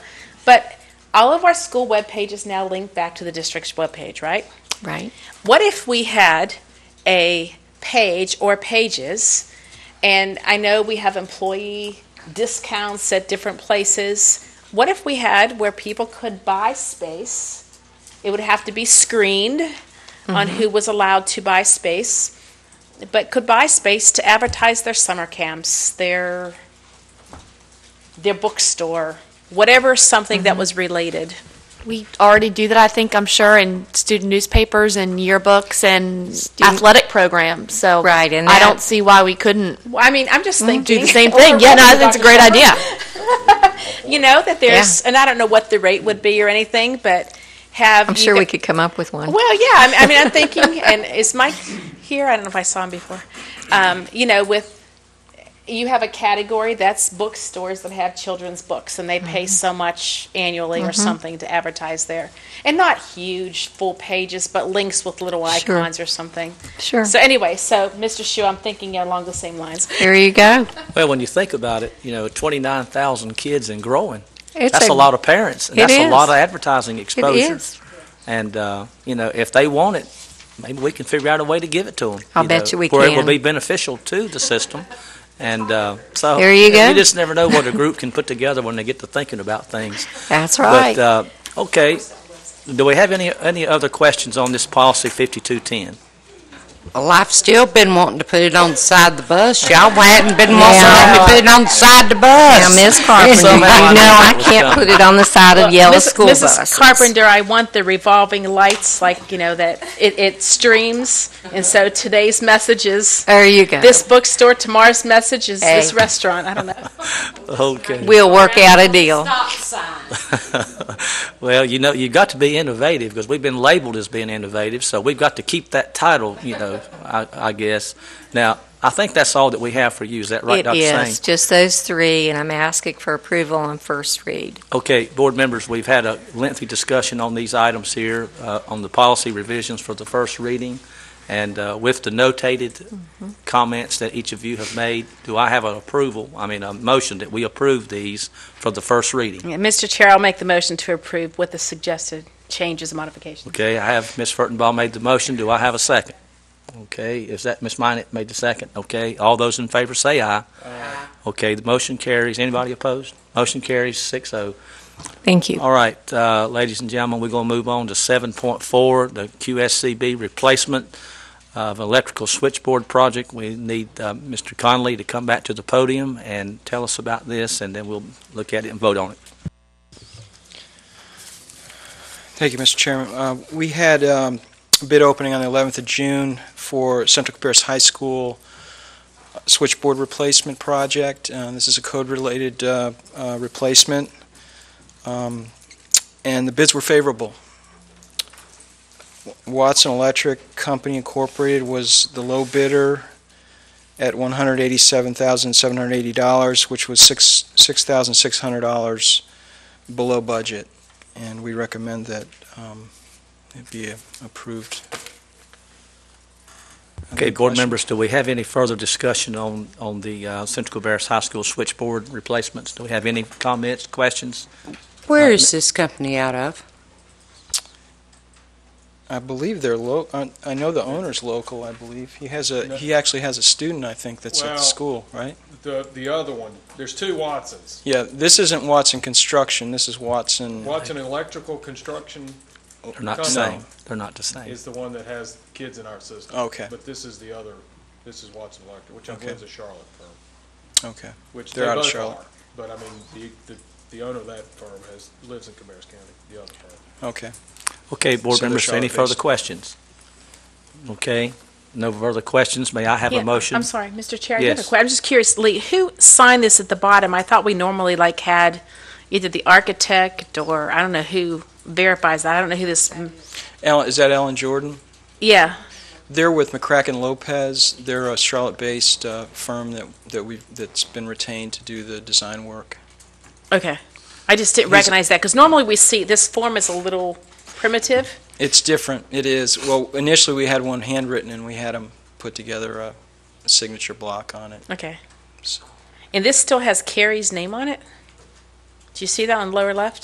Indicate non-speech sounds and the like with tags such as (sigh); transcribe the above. all of our school web pages now link back to the district's web page, right? Right. What if we had a page or pages? And I know we have employee discounts at different places. What if we had where people could buy space? It would have to be screened on who was allowed to buy space, but could buy space to advertise their summer camps, their their bookstore, whatever something Mm-hmm. that was related. We already do that, I think, I'm sure, in student newspapers and yearbooks and athletic programs, so. Right, and I don't that- see why we couldn't Well, I mean, I'm just Mm-hmm. do thinking. the (laughs) same thing. Yeah, no, I think it's a great idea. You know that there's, and I don't know what the rate would be or anything, but have I'm you sure we gu- could come up with one. Well, yeah. I mean, I mean, I'm thinking, (laughs) and is Mike here? I don't know if I saw him before. Um, you know, with you have a category that's bookstores that have children's books, and they Mm-hmm. pay so much annually or something to advertise there, and not huge full pages, but links with little Sure. icons or something. Sure. So anyway, so Mr. Shu, I'm thinking along the same lines. There you go. Well, when you think about it, you know, 29,000 kids and growing. It's That's a lot of parents, and It that's a is. lot of advertising It exposure. is. And, uh, you know, if they want it, maybe we can figure out a way to give it to them. I'll bet you we Where it will can. be beneficial to the system. And uh, so. There you go. You just never know what a group can put together when they get to thinking about things. That's right. But, uh, okay, do we have any, any other questions on this policy 5210? Well, I've still been wanting to put it on the side of the bus. Y'all hadn't been wanting to put it on the side of the bus. Now, Ms. Carpenter, (laughs) you Somehow know I knew I it was can't coming. put it on the side of yellow Miss- school Mrs. buses. Carpenter, I want the revolving lights, like, you know, that it, it streams. And so today's message is There you go. this bookstore, tomorrow's message is this Hey. restaurant. I don't know. Okay. We'll work out a deal. (laughs) Well, you know, you've got to be innovative because we've been labeled as being innovative, so we've got to keep that title, you know, I, I guess. Now, I think that's all that we have for you. Is that right, It Dr. is, Singh? just those three, and I'm asking for approval on first read. Okay, board members, we've had a lengthy discussion on these items here, uh, on the policy revisions for the first reading, and uh, with the notated Mm-hmm. comments that each of you have made, do I have an approval, I mean, a motion that we approve these for the first reading? (laughs) Yeah, Mr. Chair, I'll make the motion to approve with the suggested changes and modifications. Okay, I have Ms. Furtenbaugh made the motion. Do I have a second? Okay, is that Ms. Minnet made the second? Okay, all those in favor say aye. Aye. Okay, the motion carries. Anybody opposed? Motion carries six oh. Thank you. All right, uh, ladies and gentlemen, we're going to move on to seven point four, the QSCB replacement of electrical switchboard project. We need uh, Mr. Conley to come back to the podium and tell us about this, and then we'll look at it and vote on it. Thank you, Mr. Chairman. Uh, We had um, a bid opening on the 11th of June for Central Pierce High School switchboard replacement project. Uh, This is a code-related uh, uh, replacement, Um, and the bids were favorable. Watson Electric Company Incorporated was the low bidder at $187,780, which was six $6,600 below budget and we recommend that um, it be approved. Okay, board members. members, do we have any further discussion on, on the uh, Central Cabarrus High School switchboard replacements? Do we have any comments, questions? Where is this company out of? I believe they're lo, I I know the owner's local, I believe. He has a, he actually has a student, I think, that's at the Well- school, right? The, the other one, there's two Watsons. Yeah, this isn't Watson Construction, this is Watson. Watson Electrical Construction They're not the Come same. They're not the same. is the one that has kids in our system. Oh, Okay, But this is the other, this is Watson Electric, which I Okay. believe is a Charlotte firm, okay. which they They're out of both Charlotte. are. But I mean, the, the, the owner of that firm has, lives in Cabarrus County, the other firm. Okay. Okay, board So they're members, any further Charlotte-based. questions? Okay, no further questions. May I have Yeah, a motion? I'm sorry, Mr. Chair, I did a Yes. que- I'm just curious, Lee, who signed this at the bottom? I thought we normally like had either the architect or, I don't know who verifies that. I don't know who this, Alan, is that Alan Jordan? yeah. They're with McCracken Lopez. They're a Charlotte-based uh, firm that, that we, that's been retained to do the design work. Okay. I just didn't recognize that, because normally we see, this form is a little primitive. It's different. It is. Well, initially we had one handwritten and we had them put together a signature block on it. Okay. So- And this still has Carrie's name on it? Do you see that on the lower left?